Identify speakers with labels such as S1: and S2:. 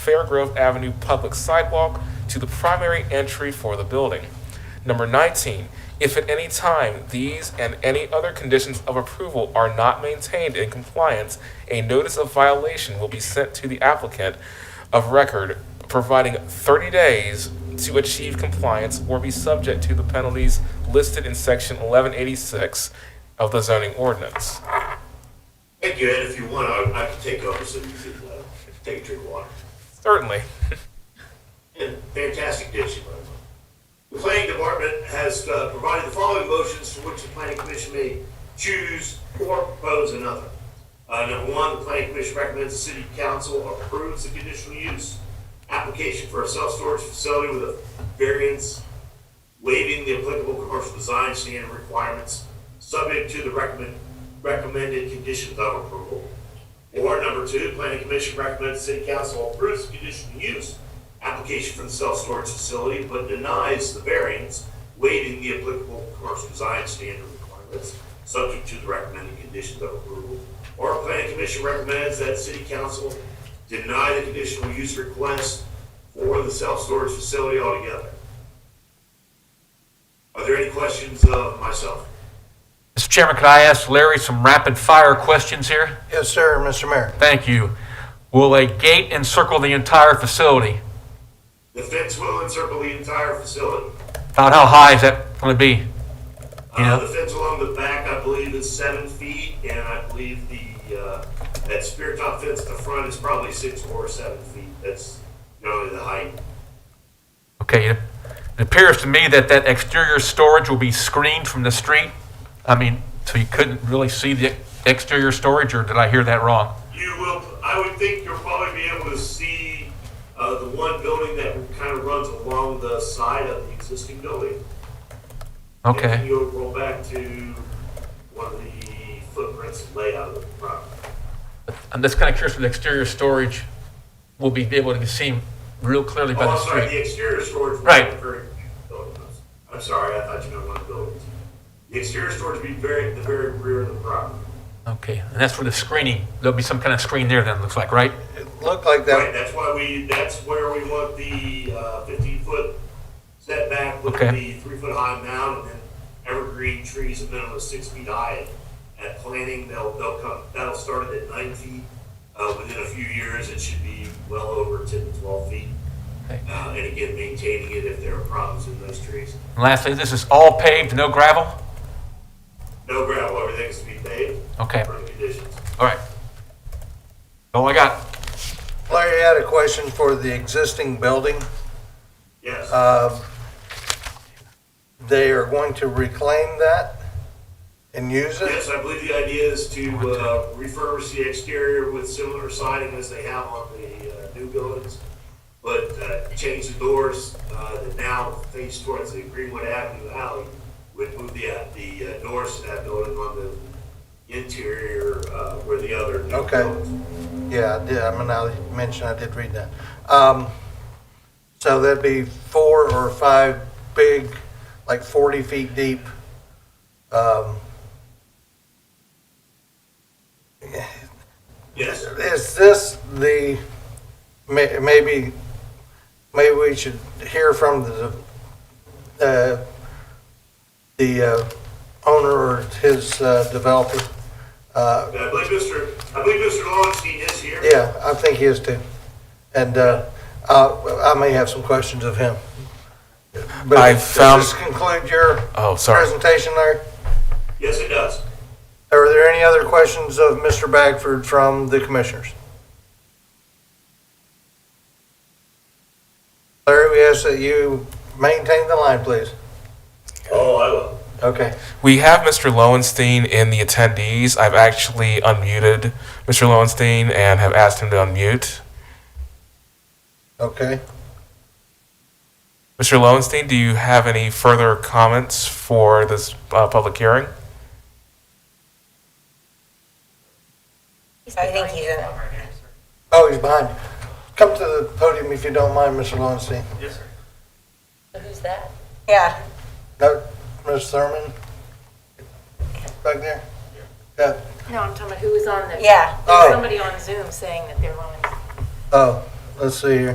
S1: Fairgrove Avenue public sidewalk to the primary entry for the building. Number 19, if at any time these and any other conditions of approval are not maintained in compliance, a notice of violation will be sent to the applicant of record, providing 30 days to achieve compliance or be subject to the penalties listed in section 1186 of the zoning ordinance.
S2: Thank you, Ed. If you want, I, I can take over so you can, uh, take a drink of water.
S1: Certainly.
S2: And fantastic dish, by the way. The planning department has, uh, provided the following motions for which the planning commission may choose or propose another. Uh, number one, the planning commission recommends the city council approves the conditional use application for a self-storage facility with a variance waiving the applicable commercial design standard requirements, subject to the recommend, recommended conditions of approval. Or number two, the planning commission recommends city council approves the conditional use application for the self-storage facility, but denies the variance, waiving the applicable commercial design standard requirements, subject to the recommended conditions of approval. Or planning commission recommends that city council deny the conditional use request for the self-storage facility altogether. Are there any questions of myself?
S3: Mr. Chairman, could I ask Larry some rapid-fire questions here?
S4: Yes, sir, Mr. Mayor.
S3: Thank you. Will a gate encircle the entire facility?
S2: The fence will encircle the entire facility.
S3: About how high is that going to be?
S2: Uh,
S3: Yeah.
S2: the fence along the back, I believe, is seven feet, and I believe the, uh, that spear top fence at the front is probably six or seven feet. That's normally the height.
S3: Okay, it it appears to me that that exterior storage will be screened from the street. I mean, so you couldn't really see the exterior storage, or did I hear that wrong?
S2: You will, I would think you'll probably be able to see, uh, the one building that kind of runs along the side of the existing building. And then
S3: Okay,
S2: you'll roll back to one of the footprints layout of the property.
S3: I'm just kind of curious if the exterior storage will be able to be seen real clearly by
S2: Oh,
S3: the
S2: I'm sorry,
S3: street.
S2: the exterior storage. will be
S3: Right.
S2: very- I'm sorry, I thought you meant one of the buildings. The exterior storage would be very, at the very rear of the property.
S3: Okay, and that's for the screening, there'll be some kind of screen there then, looks like, right?
S4: It looked
S2: Right,
S4: like that,
S2: that's why we, that's where we want the uh, fifteen-foot setback with
S3: Okay.
S2: the three-foot-high mound and then evergreen trees a minimum of six feet high. At planting, they'll, they'll come, that'll start at nine feet. Uh, Within a few years, it should be well over ten to twelve feet.
S3: Okay.
S2: Uh, And again, maintaining it if there are problems in those trees.
S3: And lastly, this is all paved, no gravel?
S2: No gravel, everything's to be paved.
S3: Okay,
S2: Current conditions.
S3: all right. All I got.
S4: Larry had a question for the existing building.
S2: Yes,
S4: Um, They are going to reclaim that and use it?
S2: yes, I believe the idea is to uh, refurbish the exterior with similar siding as they have on the uh, new buildings, but uh, change the doors uh, that now face towards the Greenwood Avenue alley, would move the, uh, the uh, doors to that building on the interior uh, where the other. new
S4: Okay.
S2: buildings-
S4: Yeah, I did, I mean, I mentioned, I did read that. Um, So that'd be four or five big, like 40 feet deep. um,
S2: Yes,
S4: Is this the, may- maybe, maybe we should hear from the, uh, the uh, owner or his uh, developer? Uh,
S2: I believe Mr., I believe Mr. Longstein is here.
S4: Yeah, I think he is too. And uh, I I may have some questions of him. But
S1: I found-
S4: Does this conclude your
S1: Oh, sorry.
S4: presentation, Larry?
S2: Yes, it does.
S4: Are there any other questions of Mr. Bagford from the commissioners? Larry, we ask that you maintain the line, please.
S2: Oh, I will.
S4: Okay.
S1: We have Mr. Lowenstein in the attendees. I've actually unmuted Mr. Lowenstein and have asked him to unmute.
S4: Okay.
S1: Mr. Lowenstein, do you have any further comments for this uh, public hearing?
S5: I think he's in.
S4: Oh, he's behind you. Come to the podium if you don't mind, Mr. Lowenstein.
S5: Who's that? Yeah.
S4: No, Ms. Thurman? Back there? Yeah.
S6: No, I'm talking about who was on the.
S5: Yeah.
S6: There's
S4: Oh.
S6: somebody on Zoom saying that they're on.
S4: Oh, let's see here.